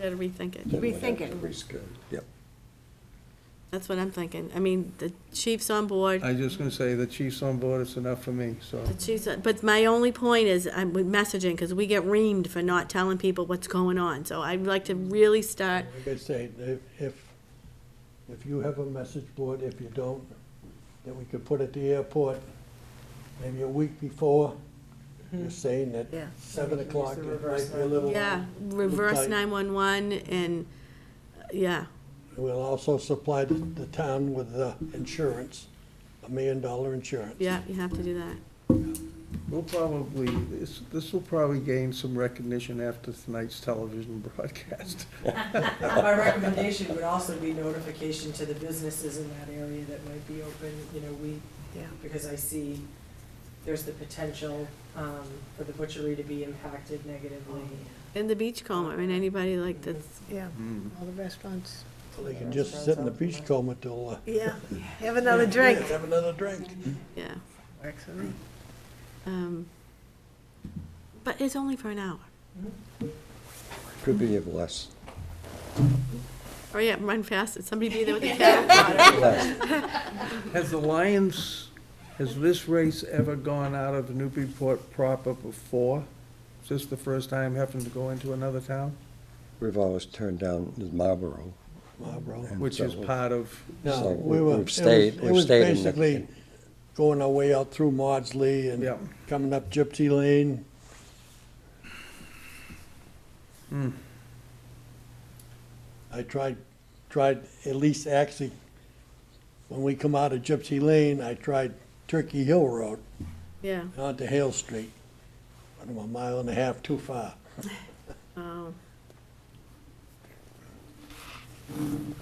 gotta rethink it. Then we'd have Rethink to it. reschedule. Yep. That's what I'm thinking. I mean, the chief's on board, I was just gonna say, the chief's on board, it's enough for me, so. the chief's, on- but my only point is, I'm with messaging, because we get reamed for not telling people what's going on. So I'd like to really start, Like I say, if, if, if you have a message board, if you don't, then we could put at the airport, maybe a week before, you're saying that Mm-hmm. Yeah. seven Use the o'clock, it reverse might be a little. yeah, reverse Tight. nine-one-one and, uh, yeah. We'll also supply the, the town with the insurance, a million dollar insurance. Yeah, you have to do that. We'll probably, this, this will probably gain some recognition after tonight's television broadcast. My recommendation would also be notification to the businesses in that area that might be open, you know, we, Yeah. because I see there's the potential um, for the butchery to be impacted negatively. And the beachcomber, and anybody like that's, Yeah, Mm. all the restaurants. They can just sit in the beach coma till, uh. Yeah, have another drink. yeah, Have another drink. yeah. Works for me. Um, But it's only for an hour. Could be of less. Oh, yeah, run fast. Somebody be there with a paddle. Less. Has the Lions, has this race ever gone out of Newburyport proper before? Is this the first time having to go into another town, We've always turned down Marlboro. Marlboro. And which is so- part of, No, So we we- were, we've it was, stayed- it we've was stayed in the- basically going our way out through Maudsley Yeah. and coming up Gypsy Lane. Hmm. I tried, tried at least actually, when we come out of Gypsy Lane, I tried Turkey Hill Road Yeah, and onto Hale Street. But I'm a mile and a half too far. oh.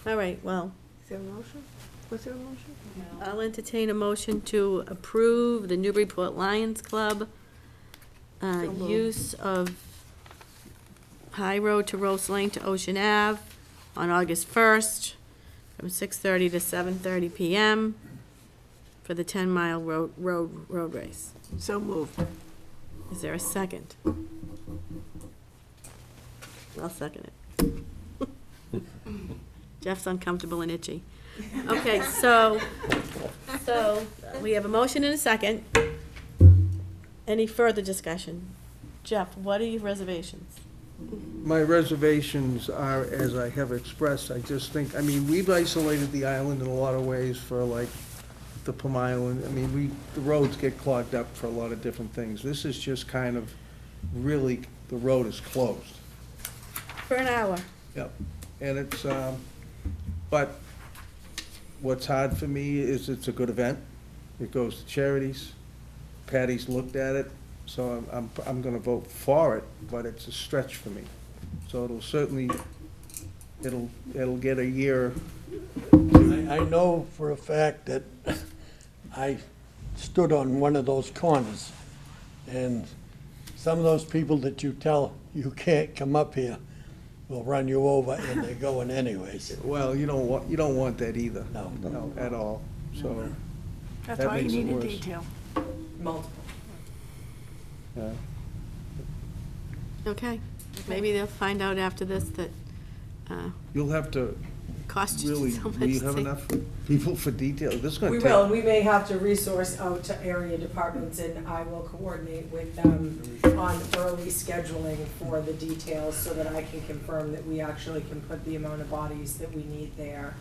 All right, well, Is there a motion? Was there a motion? I'll entertain a motion to approve the Newburyport Lions Club uh, So moved. use of High Road to Rose Lane to Ocean Ave on August 1st from 6:30 to 7:30 PM for the 10-mile road, road, road race. So moved. Is there a second? I'll second it. Jeff's uncomfortable and itchy. Okay, so, so we have a motion and a second. Any further discussion? Jeff, what are your reservations? my reservations are, as I have expressed, I just think, I mean, we've isolated the island in a lot of ways for like the Plum Island, I mean, we, the roads get clogged up for a lot of different things. This is just kind of, really, the road is closed. For an hour. Yep, and it's, um, but what's hard for me is it's a good event. It goes to charities. Patty's looked at it, so I'm, I'm, I'm gonna vote for it, but it's a stretch for me. So it'll certainly, it'll, it'll get a year. I, I know for a fact that I stood on one of those corners, and some of those people that you tell you can't come up here will run you over, and they're going anyways. Well, you don't want, you don't want that either. No. No, at all, so, That's That why you makes it need a worse. detail. Multiple. yeah. Okay, maybe they'll find out after this that uh, You'll have to, cost you really, so much. will you have to- enough people for detail? This is gonna We take. will, and we may have to resource out to area departments, and I will coordinate with them on early scheduling for the details so that I can confirm that we actually can put the amount of bodies that we need there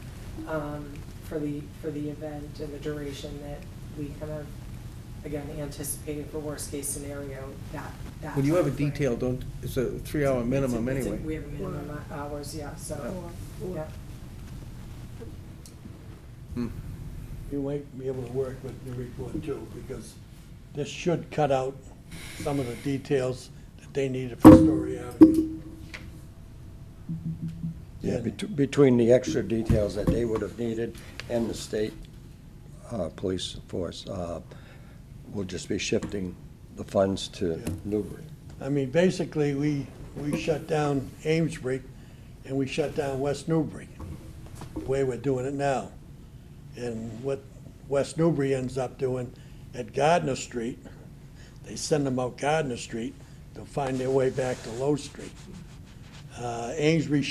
um, for the, for the event and the duration that we kind of, again, anticipated for worst-case scenario, that, that. When you have a timeframe. detail, don't, it's a three-hour minimum It's a- it's a- anyway. We have a minimum hours, yeah, so, yeah. You might be able to work with the report too, because this should cut out some of the details that they needed for Story Avenue. Yeah, bet- between the extra details that they would have needed and the state uh, police force, uh, we'll just be shifting the funds to Yeah. Newbury. I mean, basically, we, we shut down Amesbury and we shut down West Newbury, the way we're doing it now. And what West Newbury ends up doing at Gardner Street, they send them out Gardner Street, they'll find their way back to Low Street. Uh, Amesbury